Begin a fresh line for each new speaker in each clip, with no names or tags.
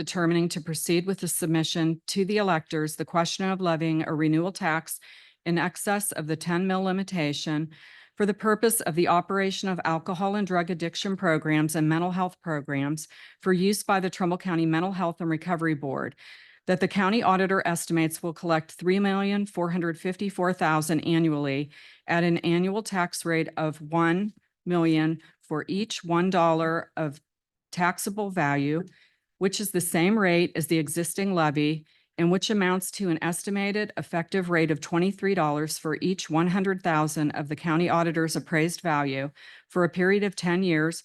determining to proceed with the submission to the electors, the question of levying a renewal tax in excess of the ten mil limitation for the purpose of the operation of alcohol and drug addiction programs and mental health programs for use by the Trumbull County Mental Health and Recovery Board that the county auditor estimates will collect three million, four hundred fifty-four thousand annually at an annual tax rate of one million for each one dollar of taxable value, which is the same rate as the existing levy and which amounts to an estimated effective rate of twenty-three dollars for each one hundred thousand of the county auditor's appraised value for a period of ten years,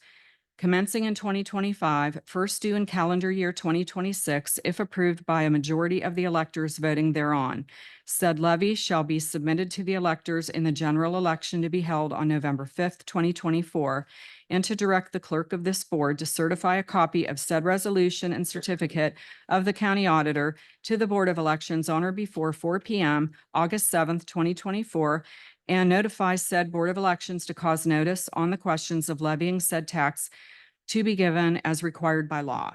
commencing in 2025, first due in calendar year twenty twenty-six, if approved by a majority of the electors voting thereon. Said levy shall be submitted to the electors in the general election to be held on November fifth, twenty twenty-four, and to direct the clerk of this board to certify a copy of said resolution and certificate of the county auditor to the Board of Elections on or before four P M, August seventh, twenty twenty-four, and notify said Board of Elections to cause notice on the questions of levying said tax to be given as required by law.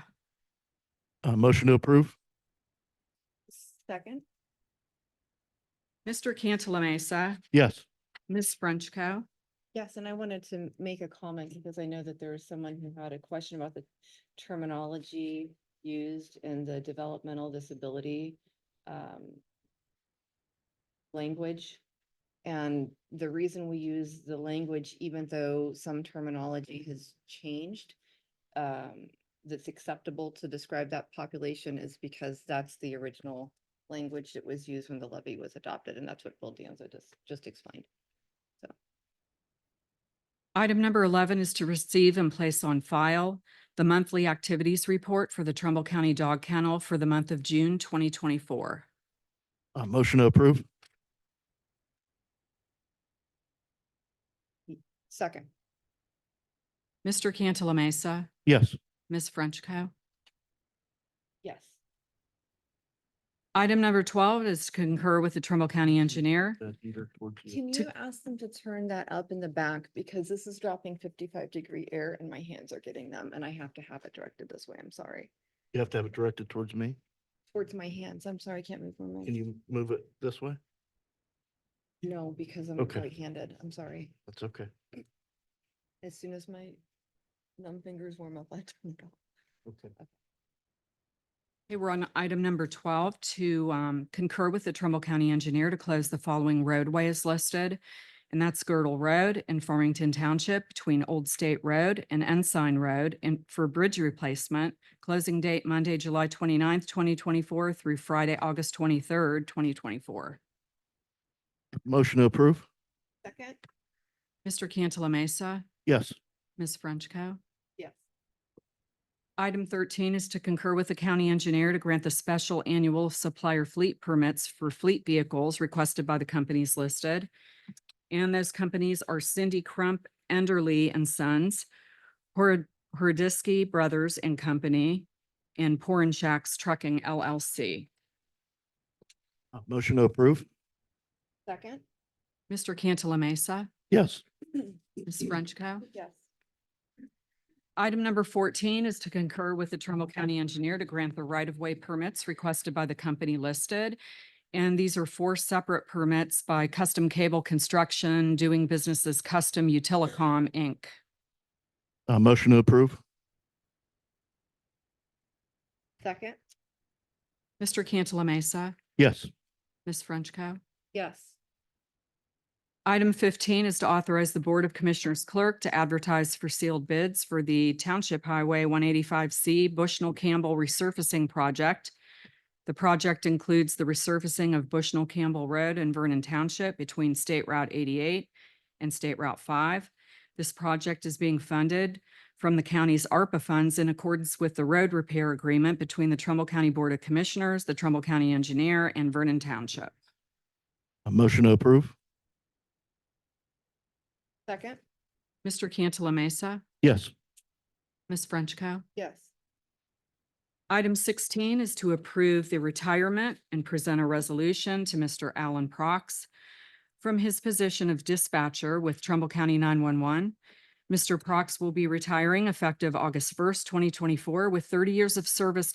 Uh, motion to approve?
Second.
Mr. Cantala Mesa,
Yes.
Ms. Frenchco.
Yes, and I wanted to m- make a comment because I know that there was someone who had a question about the terminology used in the developmental disability um, language. And the reason we use the language, even though some terminology has changed, um, that's acceptable to describe that population is because that's the original language that was used when the levy was adopted, and that's what Bill Danza just, just explained.
Item number eleven is to receive and place on file the monthly activities report for the Trumbull County Dog Kennel for the month of June twenty twenty-four.
Uh, motion to approve?
Second.
Mr. Cantala Mesa,
Yes.
Ms. Frenchco.
Yes.
Item number twelve is to concur with the Trumbull County Engineer.
Can
To-
you ask them to turn that up in the back because this is dropping fifty-five degree air and my hands are getting them and I have to have it directed this way. I'm sorry.
You have to have it directed towards me.
Towards my hands. I'm sorry, I can't move my
Can
mic.
you move it this way?
No, because I'm
Okay.
right-handed. I'm sorry.
That's okay.
As soon as my numb fingers warm up, I turn it off.
Okay.
Okay, we're on item number twelve to um, concur with the Trumbull County Engineer to close the following roadway as listed. And that's Girdle Road in Farmington Township between Old State Road and Ensign Road and for bridge replacement. Closing date Monday, July 29th, twenty-four through Friday, August twenty-third, twenty twenty-four.
Motion to approve?
Second?
Mr. Cantala Mesa,
Yes.
Ms. Frenchco.
Yes.
Item thirteen is to concur with the county engineer to grant the special annual supplier fleet permits for fleet vehicles requested by the companies listed. And those companies are Cindy Crump, Enderly and Sons, Hor- Hordisky Brothers and Company, and Porin Shacks Trucking LLC.
Uh, motion to approve?
Second?
Mr. Cantala Mesa,
Yes.
Ms. Frenchco.
Yes.
Item number fourteen is to concur with the Trumbull County Engineer to grant the right-of-way permits requested by the company listed. And these are four separate permits by Custom Cable Construction, doing business as Custom Utilicom, Inc.
Uh, motion to approve?
Second?
Mr. Cantala Mesa,
Yes.
Ms. Frenchco.
Yes.
Item fifteen is to authorize the Board of Commissioners clerk to advertise for sealed bids for the Township Highway one eighty-five C Bushnell Campbell Resurfacing Project. The project includes the resurfacing of Bushnell Campbell Road in Vernon Township between State Route eighty-eight and State Route five. This project is being funded from the county's ARPA funds in accordance with the road repair agreement between the Trumbull County Board of Commissioners, the Trumbull County Engineer, and Vernon Township.
A Uh, motion to approve?
Second?
Mr. Cantala Mesa,
Yes.
Ms. Frenchco.
Yes.
Item sixteen is to approve the retirement and present a resolution to Mr. Alan Prox from his position of dispatcher with Trumbull County nine-one-one. Mr. Prox will be retiring effective August first, twenty twenty-four, with thirty years of service